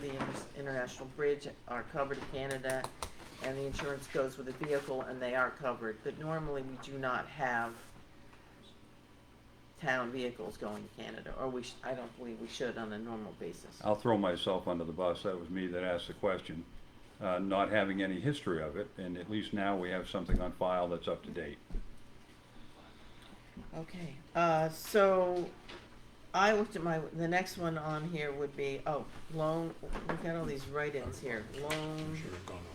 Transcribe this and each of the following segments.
the inter- International Bridge are covered in Canada, and the insurance goes with the vehicle, and they are covered. But normally, we do not have town vehicles going to Canada, or we, sh- I don't believe we should on a normal basis. I'll throw myself under the bus. That was me that asked the question, uh, not having any history of it, and at least now we have something on file that's up to date. Okay, uh, so I looked at my, the next one on here would be, oh, loan, we've got all these write-ins here, loan. Should have gone over.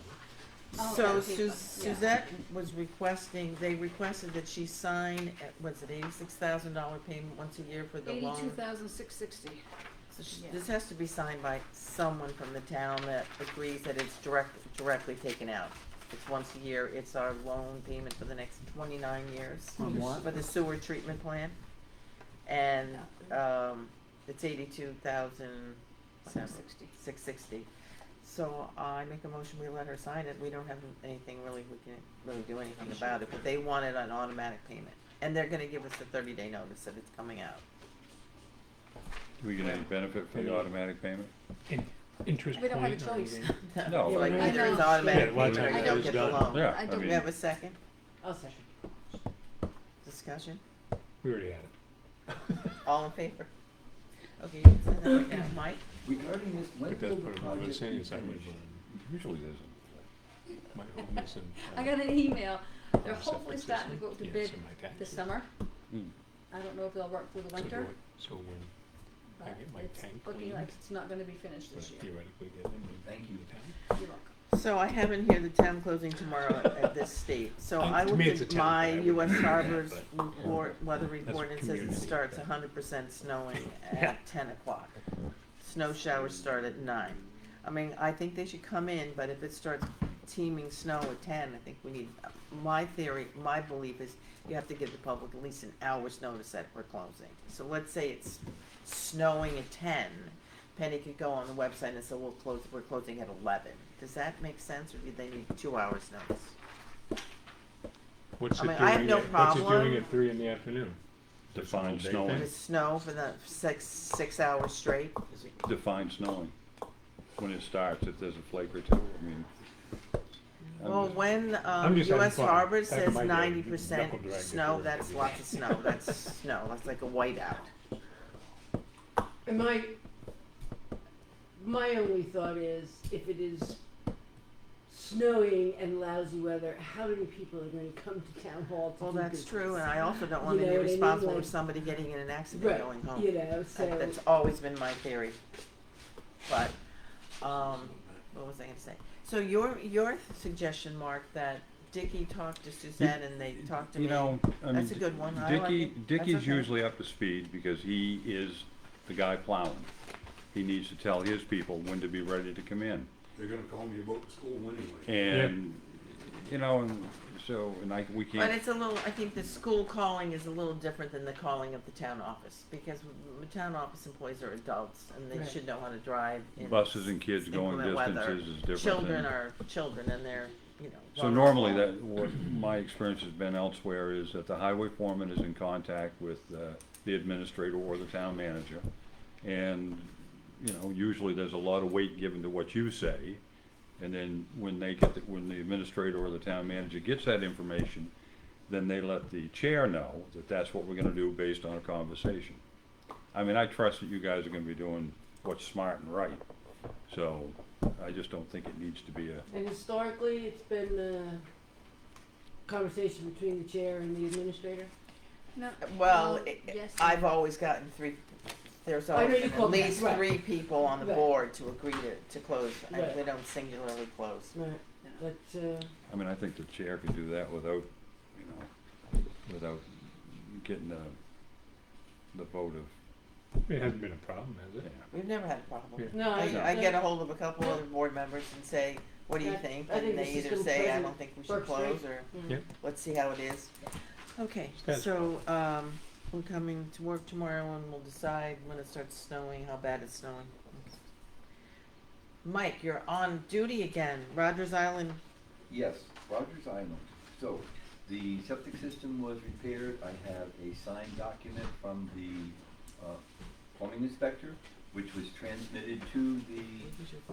Oh, So that'd be Su- fun, yeah. Suzette was requesting, they requested that she sign, at- what's it, eighty-six thousand dollar payment once a year for the loan? Eighty-two thousand six sixty. So sh- yeah. This has to be signed by someone from the town that agrees that it's direct, directly taken out. It's once a year, it's our loan payment for the next twenty-nine years. On what? For the sewer treatment plan. And, um, it's eighty-two thousand, Six sixty. six sixty. So I make a motion, we let her sign it, we don't have anything really, we can really do anything about it, but they wanted an automatic payment. And they're gonna give us a thirty-day notice that it's coming out. Do we get any benefit for the automatic payment? In- Interest We point. don't have a or choice. anything? No, Like I mean- either it's I know. automatic Yeah, once payment or it you don't is get the done. loan. Yeah, I I don't- Do mean, we have a second I'll second. discussion? We already had it. All in favor? Okay, you can send that right now. Mike? Regarding this, when But that's will the part of what I'm project saying be is I would, finished? usually there's a uh, my home is in. I got an email. uh, They're hopefully separate system. starting to go to Yeah, bid something like that. this summer. Hmm. I don't know if they'll work through the So do winter, it- So when I but get my it's tank looking cleaned, like it's not gonna be finished but this year. theoretically get them. in Thank you. the tank. You're welcome. So I have in here the town closing tomorrow at- at this state, so Um, I to looked me, it's a at town, my but I US wouldn't do that, Harbor's report, weather report, and it says it community, starts but- hundred percent snowing at ten o'clock. Snow showers start at nine. I mean, I think they should come in, but if it starts teeming snow at ten, I think we need, my theory, my belief is you have to give the public at least an hour's notice that we're closing. So let's say it's snowing at ten, Penny could go on the website and say, we'll close, we're closing at eleven. Does that make sense, or do they need two hours notice? What's I it mean, I have doing no at- what's it problem. doing at three in the afternoon? defined Day If snowing, it's snow for the six, six hours straight, defined snowing. When it starts, if there's a flake or two, I mean. I'm Well, just- when, I'm um, just having US fun. Harbor Back in says my day, ninety knuckle percent drag snow, before that's everything. lots of snow, that's snow, that's like a whiteout. And my, my only thought is, if it is snowing and lousy weather, how many people are gonna come to town hall to Well, do that's business? true, and I also don't You want to know be what I mean? responsible for Like- somebody getting in an accident Right, going home. you know, That- so, That's always been my theory. But, um, what was I gonna say? So your, your suggestion, Mark, that Dicky talked to Suzette and they talked to me. You know, I mean. That's a good one. I like Dicky, it. That's Dicky's okay. usually up to speed because he is the guy plowing. He needs to tell his people when to be ready to come in. They're gonna call me about the school anyway. And, you know, and so, and I, we But can't, it's a little, I think the school calling is a little different than the calling of the town office, because the town office employees are adults, and they Right. should know how to drive. in buses and kids going inclement weather. distances is different. Children than- are children, and they're, you know. So normally that, what my experience has been elsewhere is that the highway foreman is in contact with uh, the administrator or the town manager. And, you know, usually there's a lot of weight given to what you say. And then when they get, the- when the administrator or the town manager gets that information, then they let the chair know that that's what we're gonna do based on a conversation. I mean, I trust that you guys are gonna be doing what's smart and right. So I just don't think it needs to be a, and historically, it's been a conversation between the chair and the administrator. No, Well, um, it- yes, I've always gotten three, there's I know always you been at called that, least right. three people on the Right. board to agree to, to close, and Right. we don't singularly close. Right, but, uh, I mean, I think the chair could do that without, you know, without getting the, the vote of, It hasn't been a problem, has yeah. it? We've never had a problem. Yeah. no, I. I, I no. get ahold of a couple other board members and say, what do you Yeah, think? I And think they the either system say, I present don't think we should works great. close, or Yeah. let's see how it is. Okay, Yes. so, um, we're coming to work tomorrow and we'll decide when it starts snowing, how bad it's snowing. Mike, you're on duty again, Rogers Island, Yes, Rogers Island. So, the septic system was repaired. I have a signed document from the uh, plumbing inspector which was transmitted to the Maybe we should